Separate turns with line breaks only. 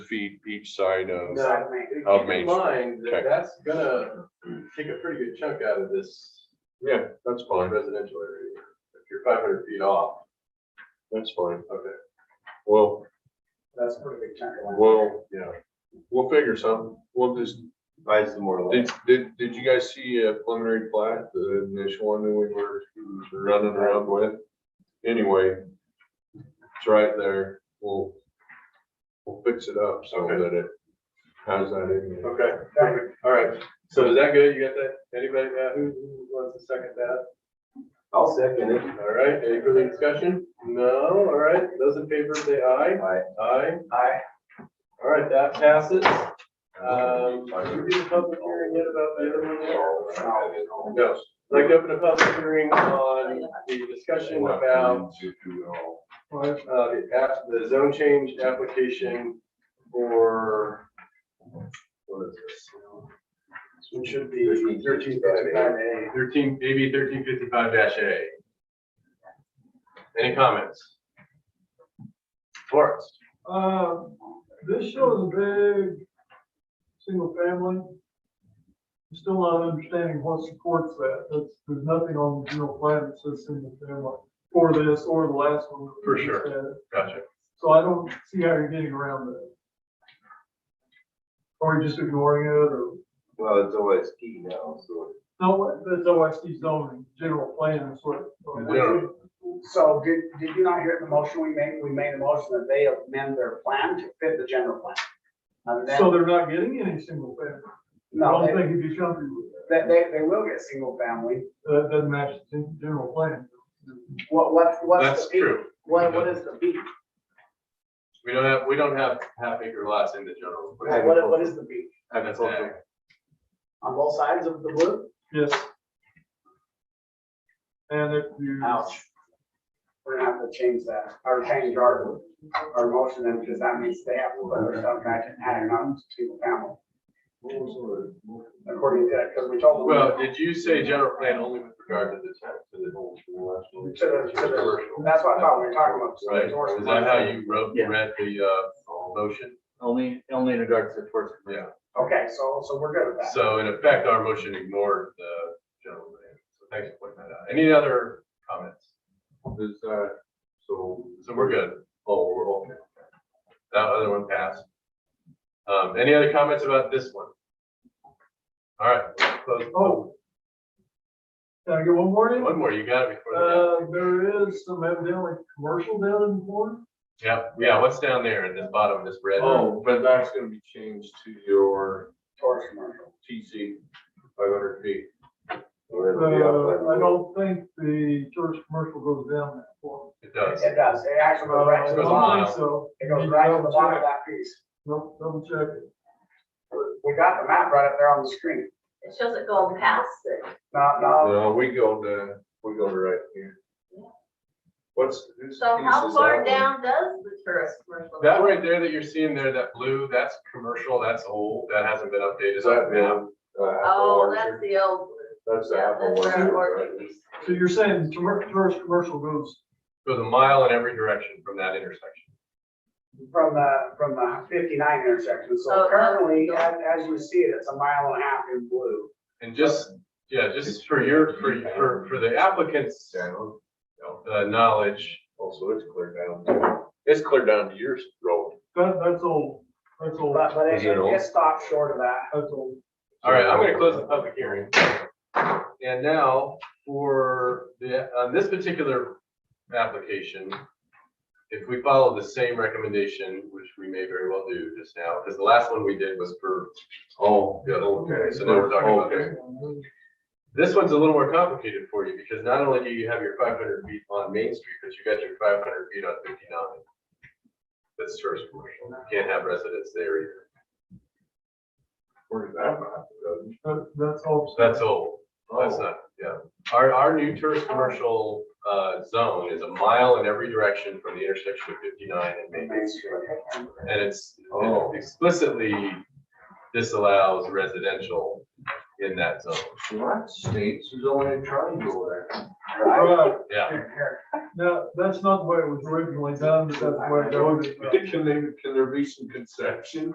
feet each side of,
Now,
Of
keep
Main
in mind
Okay.
that that's gonna take a pretty good chunk out of this
yeah, that's fine,
residential area. If you're five hundred feet off,
that's fine.
okay,
Well,
That's a pretty big chunk of land.
we'll,
yeah.
we'll figure something. We'll just,
Buy some more land.
did, did, did you guys see a preliminary plat, the initial one that we were running around with? Anyway, it's right there. We'll, we'll fix it up so
Okay.
that it has that in there.
Okay, perfect. all right. So is that good? You got that? Anybody, uh, who who wants to second that?
I'll second it.
All right, any further discussion? No, all right, those in favor say aye. Aye. Aye.
Aye.
All right, that passes. Um, did we do the public hearing yet about the other one there? No. I'd Like to open a public hearing on the discussion about uh, the app, the zone change application for, what is this? It should be thirteen fifty-five A, thirteen, maybe thirteen fifty-five dash A. Any comments? Forrest?
Uh, this shows a big single family. I'm Still not understanding what supports that. That's, there's nothing on the general plan that says single family for this or the last one. that we
For
just
sure.
had.
Gotcha.
So I don't see how you're getting around that. Or you're just ignoring it or,
Well, it's always key now, so.
no, that's OSD zoning, general plan is what.
Yeah.
So did, did you not hear the motion we made? We made a motion that they amend their plan to fit the general plan. Uh, And then,
So they're not getting any single family. I
no,
don't
they,
think it'd be jumpy with
they-
that.
they, they will get single family.
That doesn't match the general plan.
What, what, what's
That's
the beat?
true.
What, what is the beat?
We don't have, we don't have half acre lots in the general.
What, what is the beat?
And that's ag.
On both sides of the blue?
Yes. And if you,
Ouch. We're gonna have to change that, or change our, our motion then, because that means they have to put their stuff back and add it on to single family. According to that, because we told them.
Well, did you say general plan only with regard to the town, to the whole?
To the, to the, that's what I thought we were talking about.
Right, is that how you wrote,
Yeah.
read the, uh, motion?
Only, only in regards to towards.
Yeah,
Okay, so, so we're good with that.
so in effect, our motion ignored the general plan, so thanks for pointing that out. Any other comments?
Is that, so,
So we're good. Oh, we're okay. That other one passed. Um, any other comments about this one? All right, close.
oh. Can I get one more in?
One more, you got it before the,
Uh, there is some evidently commercial down in the corner.
yeah, yeah, what's down there in the bottom, this red?
oh, but that's gonna be changed to your
Tourist commercial.
TC five hundred feet.
Uh, I don't think the tourist commercial goes down that far.
It does.
It does, it actually goes right to
I
the
Goes
bottom,
don't think So.
it goes right to the bottom of that piece.
Nope, double check it.
We got the map right up there on the screen.
It shows it going past it.
No, no,
No, we go to, we go to right here. What's? whose
So
piece
how
is
far
that one?
down does the tourist commercial? go?
That right there that you're seeing there, that blue, that's commercial, that's old, that hasn't been updated.
Is that now?
Oh, that's the old. blue.
That's the
Yeah,
apple
that's
orchard,
where
right?
Orchard used to
So you're saying the tour- tourist commercial goes,
Goes a mile in every direction from that intersection.
from the, from the fifty-nine intersection, so
Oh,
currently,
no.
as, as you see it, it's a mile and a half in blue.
And just, yeah, just for your, for, for, for the applicant's,
Down,
uh, knowledge,
also it's clear down. to- It's clear down to your road.
that, that's old, that's old,
But, but it,
Is it
it
old?
just stopped short of that.
that's old.
All right, I'm gonna close the public hearing. And now for the, on this particular application, if we follow the same recommendation, which we may very well do just now, because the last one we did was for all the other. Okay. So now we're talking about this. This one's a little more complicated for you because not only do you have your five hundred feet on Main Street, but you got your five hundred feet on fifty-nine. That's first commercial. You can't have residents there either.
Where's that map?
That, that's old.
That's old. That's not, yeah. Our, our new tourist commercial, uh, zone is a mile in every direction from the intersection of fifty-nine and Main. And it's
Oh.
it explicitly disallows residential in that zone.
What states is only a triangle there?
Right.
Yeah.
No, that's not the way it was originally done, but that's the way it goes.
Can they, can there be some conception?